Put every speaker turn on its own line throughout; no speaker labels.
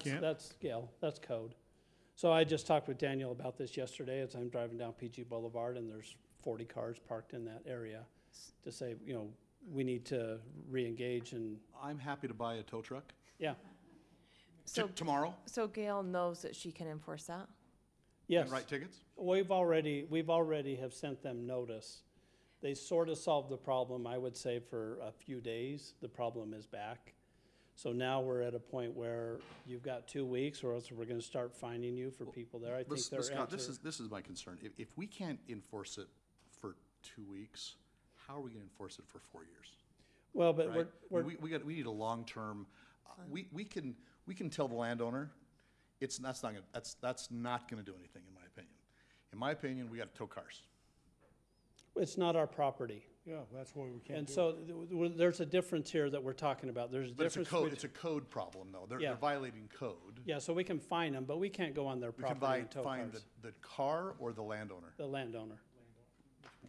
Can't?
That's, yeah, that's code. So I just talked with Daniel about this yesterday as I'm driving down PG Boulevard and there's forty cars parked in that area to say, you know, we need to reengage and,
I'm happy to buy a tow truck
yeah,
t-
So,
tomorrow
so Gail knows that she can enforce that?
yes.
and write tickets.
We've already, we've already have sent them notice. They sort of solved the problem, I would say, for a few days. The problem is back. So now we're at a point where you've got two weeks or else we're gonna start finding you for people there. I
But
think
s-
their
but Scott, this
answer-
is, this is my concern. If, if we can't enforce it for two weeks, how are we gonna enforce it for four years?
Well, but
right?
we're, we're,
We, we got, we need a long-term, uh, we, we can, we can tell the landowner, it's, that's not gonna, that's, that's not gonna do anything, in my opinion. In my opinion, we gotta tow cars.
it's not our property.
Yeah, that's why we can't
And
do it.
so th- w- there's a difference here that we're talking about. There's a
But it's a
difference.
code,
bet-
it's a code problem, though. They're,
Yeah.
they're violating code.
Yeah, so we can fine them, but we can't go on their
We can
property
buy,
and tow
find
cars.
the, the car or the landowner.
The landowner.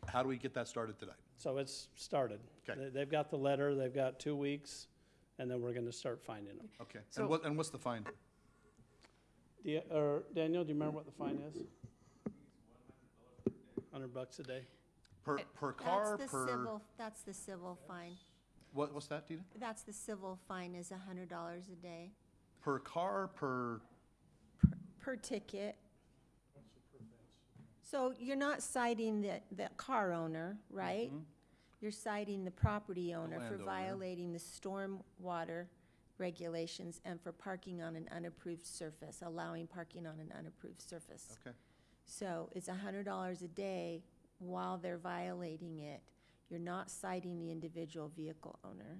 How do we get that started tonight?
So it's started.
Okay.
They- They've got the letter, they've got two weeks, and then we're gonna start finding them.
Okay,
So-
and what, and what's the fine?
Do you, or Daniel, do you remember what the fine is? Hundred bucks a day.
Per, per car,
That's the
per,
civil, that's the civil fine.
what, what's that, Dina?
That's the civil fine is a hundred dollars a day.
Per car, per,
per ticket. So you're not citing the, the car owner, right?
Mm-hmm.
You're citing the property owner for
landowner.
violating the stormwater regulations and for parking on an unapproved surface, allowing parking on an unapproved surface.
okay.
So it's a hundred dollars a day while they're violating it. You're not citing the individual vehicle owner.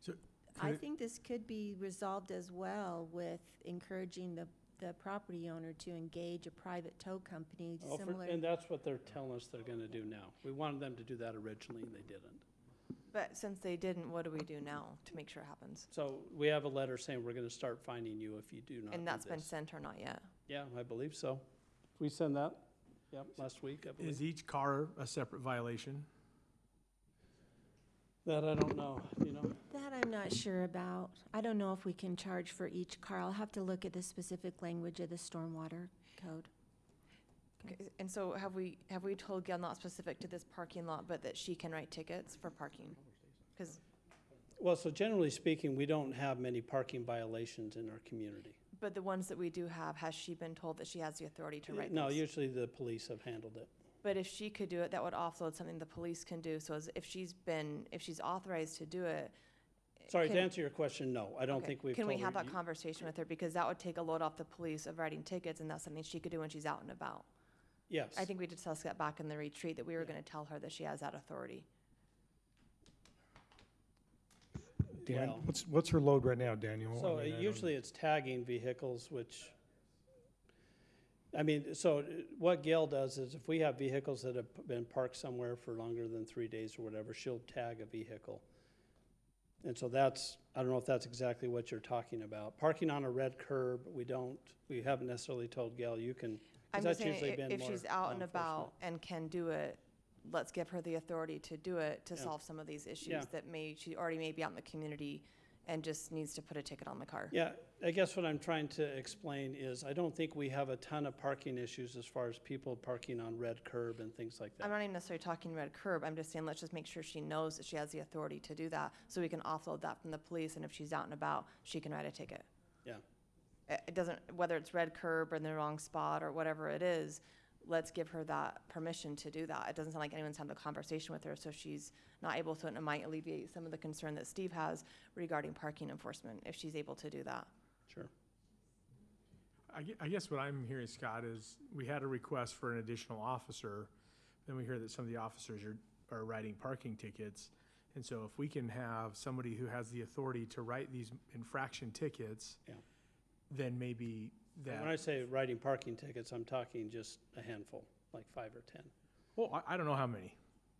So
I
could it-
think this could be resolved as well with encouraging the, the property owner to engage a private tow company
Oh, for-
similar.
And that's what they're telling us they're gonna do now. We wanted them to do that originally, and they didn't.
But since they didn't, what do we do now to make sure it happens?
So we have a letter saying we're gonna start finding you if you do not do
And that's been
this.
sent or not yet?
Yeah, I believe so. We send that, yep, last week, I
is
believe.
each car a separate violation?
That I don't know, you know?
That I'm not sure about. I don't know if we can charge for each car. I'll have to look at the specific language of the stormwater code.
Okay, And so have we, have we told Gail not specific to this parking lot, but that she can write tickets for parking? Because,
Well, so generally speaking, we don't have many parking violations in our community.
but the ones that we do have, has she been told that she has the authority to write
No,
those?
usually the police have handled it.
But if she could do it, that would offload something the police can do. So as- if she's been, if she's authorized to do it.
Sorry, to
can-
answer your question, no, I don't
okay,
think we've
Can
told
we have
her
that
you-
conversation with her? Because that would take a load off the police of writing tickets and that's something she could do when she's out and about.
Yes,
I think we discussed that back in the retreat, that we were gonna tell her that she has that authority.
Dan,
Well-
what's, what's her load right now, Daniel? I
so
mean, I
uh,
don't-
usually it's tagging vehicles, which, I mean, so uh, what Gail does is if we have vehicles that have p- been parked somewhere for longer than three days or whatever, she'll tag a vehicle. And so that's, I don't know if that's exactly what you're talking about. Parking on a red curb, we don't, we haven't necessarily told Gail, you can, 'cause
I'm just
that's
saying,
usually
i-
been
if
more
she's out
law
and
enforcement.
about and can do it, let's give her the authority to do it, to
Yeah.
solve some of these
Yeah.
issues that may, she already may be out in the community and just needs to put a ticket on the car.
Yeah, I guess what I'm trying to explain is I don't think we have a ton of parking issues as far as people parking on red curb and things like
I'm
that.
not even necessarily talking red curb, I'm just saying, let's just make sure she knows that she has the authority to do that, so we can offload that from the police, and if she's out and about, she can write a ticket.
Yeah,
uh, It it doesn't, whether it's red curb or in the wrong spot or whatever it is, let's give her that permission to do that. It doesn't sound like anyone's had the conversation with her, so she's not able to, and it might alleviate some of the concern that Steve has regarding parking enforcement, if she's able to do that.
sure.
I, gue- I guess what I'm hearing, Scott, is we had a request for an additional officer. Then we hear that some of the officers are, are writing parking tickets. And so if we can have somebody who has the authority to write these infraction tickets,
Yeah.
then maybe
When I
that,
say writing parking tickets, I'm talking just a handful, like five or 10.
well, I, I don't know how many.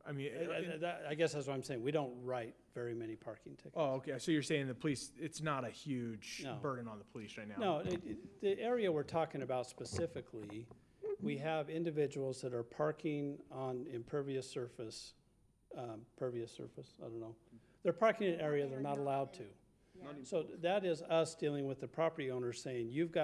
I mean,
I- I-
it-
that- I guess that's what I'm saying, we don't write very many parking tickets.
oh, okay, so you're saying the police, it's not a huge
No.
burden on the police right now?
No, it- it- the area we're talking about specifically, we have individuals that are parking on impervious surface, um, pervious surface, I don't know. They're parking in an area they're not allowed to.
Not even
So that is us dealing with the property owner saying, you've got